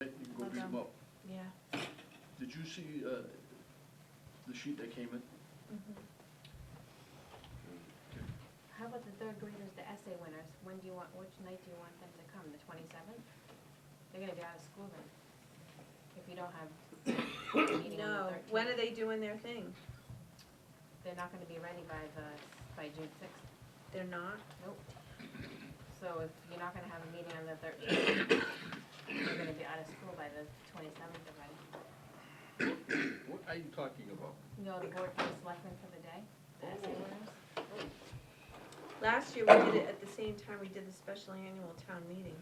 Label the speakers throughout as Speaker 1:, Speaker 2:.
Speaker 1: You can go read them up.
Speaker 2: Yeah.
Speaker 1: Did you see, uh, the sheet that came in?
Speaker 3: Mm-hmm.
Speaker 2: How about the third graders, the essay winners? When do you want, which night do you want them to come? The twenty-seventh? They're gonna be out of school then, if you don't have a meeting on the
Speaker 3: No,
Speaker 2: thirteenth.
Speaker 3: when are they doing their thing?
Speaker 2: They're not gonna be ready by the, by June sixth,
Speaker 3: They're not?
Speaker 2: nope. So if you're not gonna have a meeting on the thirteenth, they're gonna be out of school by the twenty-seventh already.
Speaker 1: What are you talking about?
Speaker 2: You know, the board for the selectmen for the day, the essay winners?
Speaker 3: Last year, we did it at the same time we did the special annual town meeting.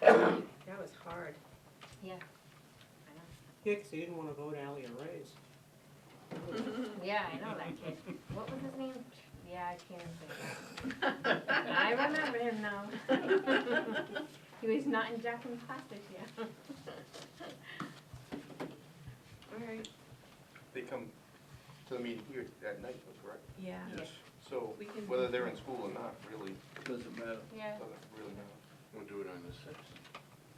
Speaker 3: That was hard.
Speaker 2: Yeah. I know.
Speaker 4: Yeah, 'cause they didn't wanna vote Ally a raise.
Speaker 2: Yeah, I know that kid. What was his name? Yeah, I can't think. I remember him now. he was not in Jackson's class this year.
Speaker 3: All right,
Speaker 5: They come to the meeting here at night, though, correct?
Speaker 3: yeah.
Speaker 1: Yes,
Speaker 5: So
Speaker 3: We can-
Speaker 5: whether they're in school or not, really,
Speaker 1: doesn't matter.
Speaker 2: yeah,
Speaker 5: doesn't really matter.
Speaker 6: We'll do it on the sixth,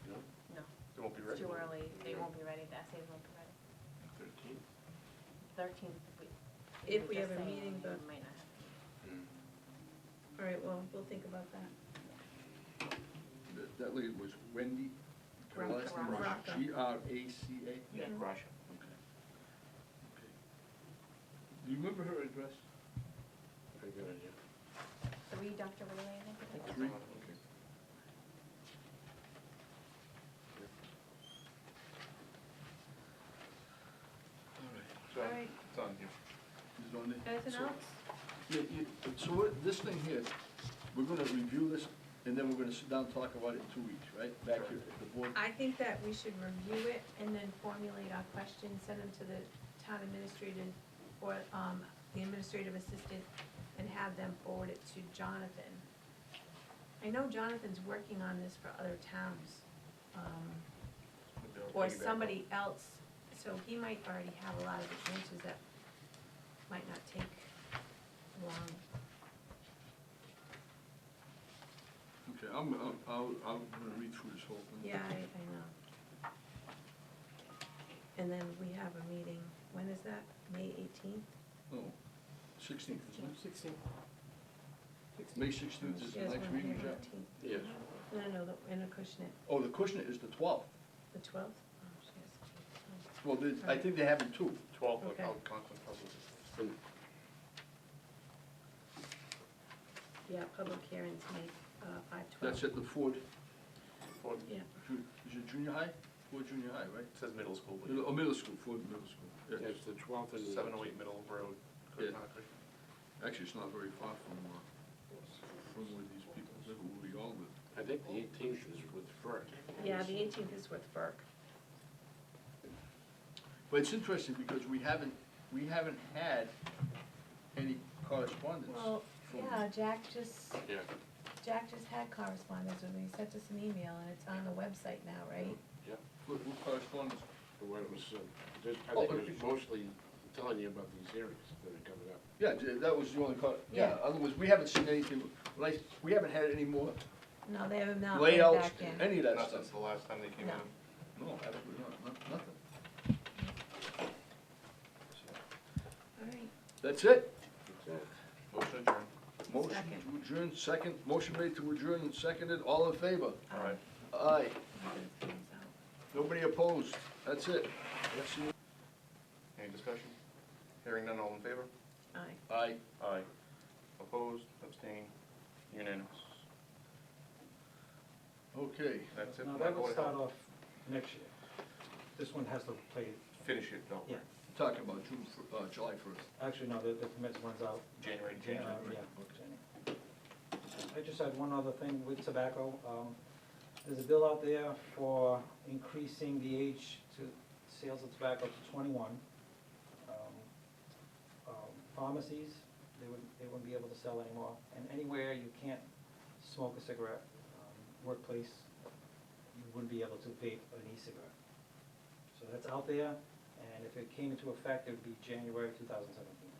Speaker 6: no?
Speaker 2: No.
Speaker 5: They won't be
Speaker 2: it's
Speaker 5: ready.
Speaker 2: too early. They won't be ready. The essays won't be ready.
Speaker 6: Thirteenth?
Speaker 2: Thirteenth.
Speaker 3: If we have a meeting, but-
Speaker 2: Might not have.
Speaker 6: Hmm.
Speaker 3: All right, well, we'll think about that.
Speaker 1: That- That lady was Wendy, her
Speaker 3: Gra-
Speaker 1: last name was
Speaker 3: Graca.
Speaker 1: G R A C A.
Speaker 5: Yeah, Russia.
Speaker 1: Do you remember her address?
Speaker 6: Very good idea.
Speaker 2: Three Dr. Wiley, I think it is.
Speaker 1: Three,
Speaker 5: So
Speaker 3: All right.
Speaker 5: it's on you.
Speaker 1: is on there.
Speaker 3: Anything
Speaker 1: So-
Speaker 3: else?
Speaker 1: Yeah, you- So what, this thing here, we're gonna review this, and then we're gonna sit down and talk about it in two weeks, right? Back here at the board.
Speaker 3: I think that we should review it and then formulate our questions, send them to the town administrator or, um, the administrative assistant and have them forward it to Jonathan. I know Jonathan's working on this for other towns, um,
Speaker 5: They'll
Speaker 3: or
Speaker 5: piggyback on-
Speaker 3: somebody else, so he might already have a lot of the answers that might not take long.
Speaker 1: Okay, I'm, I'm, I'll, I'm gonna read through this whole thing.
Speaker 3: Yeah, I, I know. And then we have a meeting, when is that? May eighteenth?
Speaker 1: Oh, sixteenth, isn't it?
Speaker 4: Sixteen.
Speaker 1: May sixteenth is the next meeting, is that?
Speaker 6: Yes.
Speaker 3: No, no, no, the- in a Acushnet,
Speaker 1: Oh, the Kushner is the twelfth.
Speaker 3: the twelfth? Oh,
Speaker 1: Well, they- I think they have it too.
Speaker 5: Twelve,
Speaker 3: Okay.
Speaker 5: I'll Conklin Public.
Speaker 3: Yeah, public hearings, May, uh, five twelve.
Speaker 1: That's at the Ford,
Speaker 5: Ford-
Speaker 3: Yeah,
Speaker 1: Ju- is it junior high? Ford junior high, right?
Speaker 5: It says middle school,
Speaker 1: Middle-
Speaker 5: but
Speaker 1: Oh, middle school, Ford middle school. Yeah,
Speaker 6: It's the twelfth and the.
Speaker 5: seven oh eight Middle Road,
Speaker 1: Yeah.
Speaker 5: Concord.
Speaker 1: Actually, it's not very far from, uh, from where these people live, where we all live.
Speaker 6: I think the eighteenth is with FERC.
Speaker 3: yeah, the eighteenth is with FERC.
Speaker 1: But it's interesting because we haven't, we haven't had any correspondence.
Speaker 3: Well,
Speaker 1: from-
Speaker 3: yeah, Jack just,
Speaker 6: Yeah.
Speaker 3: Jack just had correspondence with me, he sent us an email, and it's on the website now, right?
Speaker 1: What, what correspondence?
Speaker 6: The one that was, uh, just, I
Speaker 1: Oh,
Speaker 6: think it
Speaker 1: okay.
Speaker 6: was mostly telling you about these hearings that are coming up.
Speaker 1: Yeah, th- that was the only cor, yeah,
Speaker 3: Yeah.
Speaker 1: otherwise, we haven't seen anything, like, we haven't had any more Mm-hmm.
Speaker 3: No, they have not went
Speaker 1: layouts,
Speaker 3: back in.
Speaker 1: any of that
Speaker 5: Not
Speaker 1: stuff.
Speaker 5: since the last time they came
Speaker 3: No.
Speaker 5: in.
Speaker 1: No, absolutely not, not- nothing.
Speaker 3: All right.
Speaker 1: That's it?
Speaker 5: Motion adjourned.
Speaker 1: Motion
Speaker 3: Second.
Speaker 1: to adjourn, second, motion made to adjourn and seconded, all in favor?
Speaker 5: All right.
Speaker 1: Aye.
Speaker 3: Nothing's coming out.
Speaker 1: Nobody opposed, that's it.
Speaker 5: Any discussion? Hearing none, all in favor?
Speaker 3: Aye.
Speaker 1: Aye.
Speaker 5: Aye. Opposed, abstained, unanimous.
Speaker 1: Okay,
Speaker 5: That's it.
Speaker 7: Now,
Speaker 5: for my
Speaker 7: that
Speaker 5: Board
Speaker 7: would
Speaker 5: of
Speaker 7: start
Speaker 5: Health.
Speaker 7: off next year. This one has to play,
Speaker 5: Finish it, don't
Speaker 7: yeah,
Speaker 5: worry.
Speaker 1: talking about June, fir- uh, July first.
Speaker 7: actually, no, the, the permit runs out.
Speaker 5: January,
Speaker 7: uh,
Speaker 5: January.
Speaker 7: yeah, January. I just had one other thing with tobacco. Um, There's a bill out there for increasing the age to sales of tobacco to twenty-one. Um, um, Pharmacies, they wouldn't, they wouldn't be able to sell anymore, and anywhere you can't smoke a cigarette, um, workplace, you wouldn't be able to vape an e-cigarette. So that's out there, and if it came into effect, it would be January two thousand seventeen.